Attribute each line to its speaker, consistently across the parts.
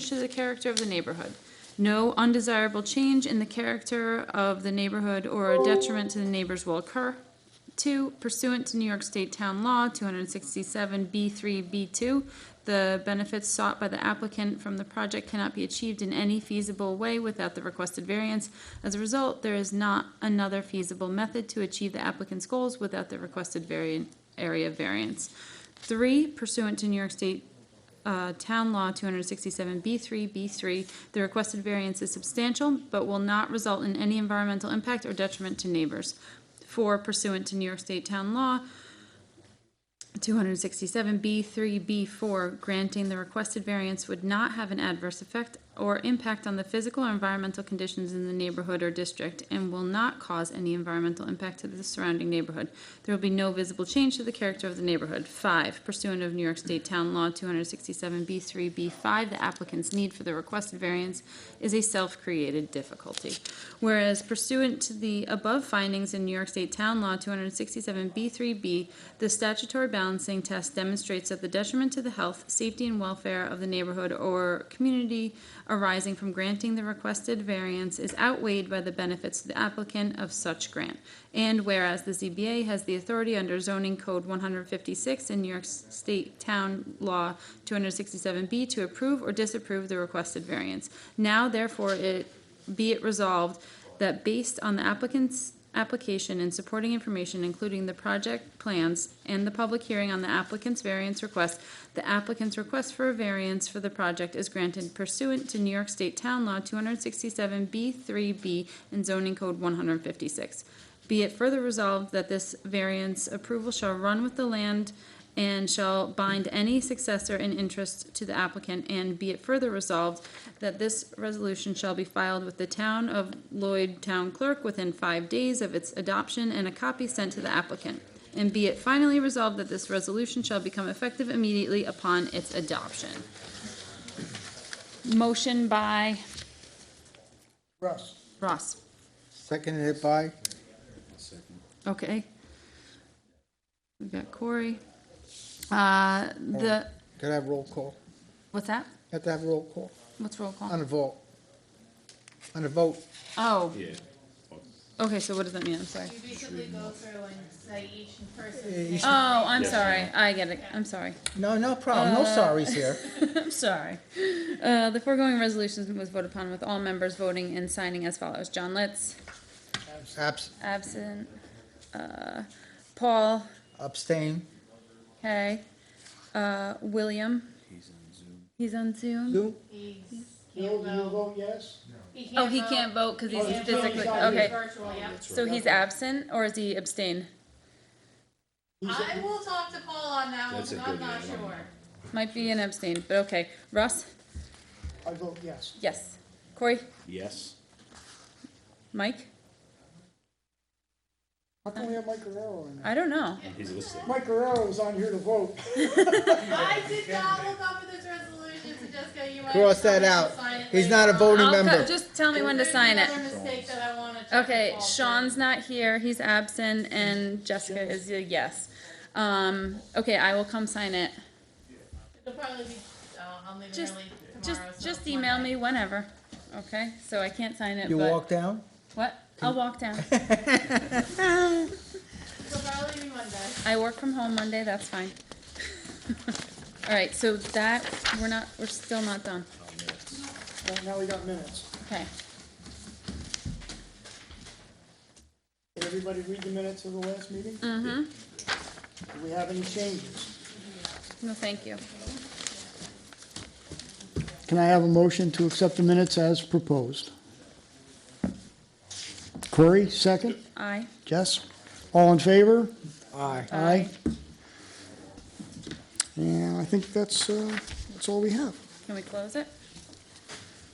Speaker 1: change to the character of the neighborhood. No undesirable change in the character of the neighborhood or a detriment to the neighbors will occur. Two, pursuant to New York State Town Law two hundred and sixty-seven B three B two, the benefits sought by the applicant from the project cannot be achieved in any feasible way without the requested variance. As a result, there is not another feasible method to achieve the applicant's goals without the requested variant, area variance. Three, pursuant to New York State uh, Town Law 267B3, B3, the requested variance is substantial but will not result in any environmental impact or detriment to neighbors. Four pursuant to New York State Town Law 267B3, B4, granting the requested variance would not have an adverse effect or impact on the physical or environmental conditions in the neighborhood or district and will not cause any environmental impact to the surrounding neighborhood. There will be no visible change to the character of the neighborhood. Five, pursuant of New York State Town Law 267B3, B5, the applicant's need for the requested variance is a self-created difficulty. Whereas pursuant to the above findings in New York State Town Law 267B3B, the statutory balancing test demonstrates that the detriment to the health, safety, and welfare of the neighborhood or community arising from granting the requested variance is outweighed by the benefits to the applicant of such grant. And whereas the ZBA has the authority under zoning code one hundred fifty-six and New York State Town Law two hundred sixty-seven B to approve or disapprove the requested variance. Now therefore it, be it resolved that based on the applicant's application and supporting information, including the project plans and the public hearing on the applicant's variance request, the applicant's request for a variance for the project is granted pursuant to New York State Town Law two hundred sixty-seven B three B and zoning code one hundred fifty-six. Be it further resolved that this variance approval shall run with the land and shall bind any successor in interest to the applicant, and be it further resolved that this resolution shall be filed with the town of Lloyd Town Clerk within five days of its adoption and a copy sent to the applicant. And be it finally resolved that this resolution shall become effective immediately upon its adoption. Motion by
Speaker 2: Russ.
Speaker 1: Ross.
Speaker 2: Seconded by
Speaker 1: Okay. We've got Corey. Uh, the,
Speaker 2: Could I have roll call?
Speaker 1: what's that?
Speaker 2: Have to have roll call
Speaker 1: What's roll call?
Speaker 2: on the vote. On the vote,
Speaker 1: Oh,
Speaker 3: Yeah.
Speaker 1: okay, so what does that mean? I'm sorry.
Speaker 4: You basically go through and say each person's
Speaker 2: Eh,
Speaker 4: name.
Speaker 1: Oh, I'm sorry. I get it. I'm sorry.
Speaker 2: no, no problem,
Speaker 1: Uh.
Speaker 2: no sorries here.
Speaker 1: I'm sorry. Uh, the foregoing resolution was voted upon with all members voting and signing as follows. John Litz,
Speaker 2: Abs-
Speaker 1: absent. Uh, Paul,
Speaker 2: Abstain.
Speaker 1: Hay. Uh, William. He's on Zoom. He's on Zoom.
Speaker 2: You?
Speaker 4: He's-
Speaker 5: Bill, do you vote yes?
Speaker 1: Oh, he can't vote because he's
Speaker 5: can't vote.
Speaker 1: physically,
Speaker 5: He's not here.
Speaker 1: okay.
Speaker 4: Virtual, yeah.
Speaker 1: So he's absent or is he abstain?
Speaker 4: I will talk to Paul on that one,
Speaker 3: That's a
Speaker 4: 'cause I'm
Speaker 3: good
Speaker 4: not
Speaker 3: idea.
Speaker 4: sure.
Speaker 1: Might be an abstain, but okay. Russ,
Speaker 5: I vote yes.
Speaker 1: yes. Corey,
Speaker 3: Yes.
Speaker 1: Mike,
Speaker 5: How come we have Mike Guerrero in there?
Speaker 1: I don't know.
Speaker 3: He's listening.
Speaker 5: Mike Guerrero was on here to vote.
Speaker 4: I did not look up for this resolution, so Jessica, you might.
Speaker 2: Cross
Speaker 4: have
Speaker 2: that out.
Speaker 4: to sign it
Speaker 2: He's
Speaker 4: later
Speaker 2: not a
Speaker 4: on.
Speaker 2: voting
Speaker 1: I'll
Speaker 2: member.
Speaker 1: cut, just tell me when to
Speaker 4: There's
Speaker 1: sign it.
Speaker 4: another mistake that I wanna check with
Speaker 1: Okay,
Speaker 4: Paul for.
Speaker 1: Sean's not here, he's absent, and Jessica is a yes. Um, okay, I will come sign it.
Speaker 4: It'll probably be, uh, I'm leaving
Speaker 1: Just,
Speaker 4: early tomorrow.
Speaker 1: just,
Speaker 4: so
Speaker 1: just
Speaker 4: it's
Speaker 1: email
Speaker 4: Monday.
Speaker 1: me whenever, okay? So I can't sign it,
Speaker 2: You
Speaker 1: but,
Speaker 2: walk down?
Speaker 1: what? I'll walk down.
Speaker 4: It'll probably be Monday.
Speaker 1: I work from home Monday, that's fine. All right, so that, we're not, we're still not done,
Speaker 5: Now- Now we got minutes.
Speaker 1: okay.
Speaker 5: Did everybody read the minutes of the last meeting? Do we have any changes?
Speaker 1: No, thank you.
Speaker 5: Can I have a motion to accept the minutes as proposed? Corey, second?
Speaker 1: Aye.
Speaker 5: Jess? All in favor?
Speaker 2: Aye.
Speaker 5: Aye. And I think that's, uh, that's all we have.
Speaker 1: Can we close it?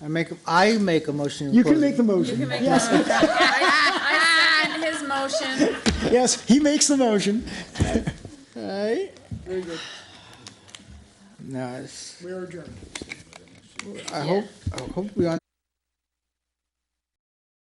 Speaker 2: I make, a- I make a motion. to
Speaker 5: You can
Speaker 2: close it.
Speaker 5: make the motion.
Speaker 1: You can make
Speaker 5: Yes,
Speaker 1: the motion. I, I second his motion.
Speaker 5: Yes, he makes the motion. All right. Very good.
Speaker 2: No, it's,
Speaker 5: We are adjourned.
Speaker 2: I hope, I hope we are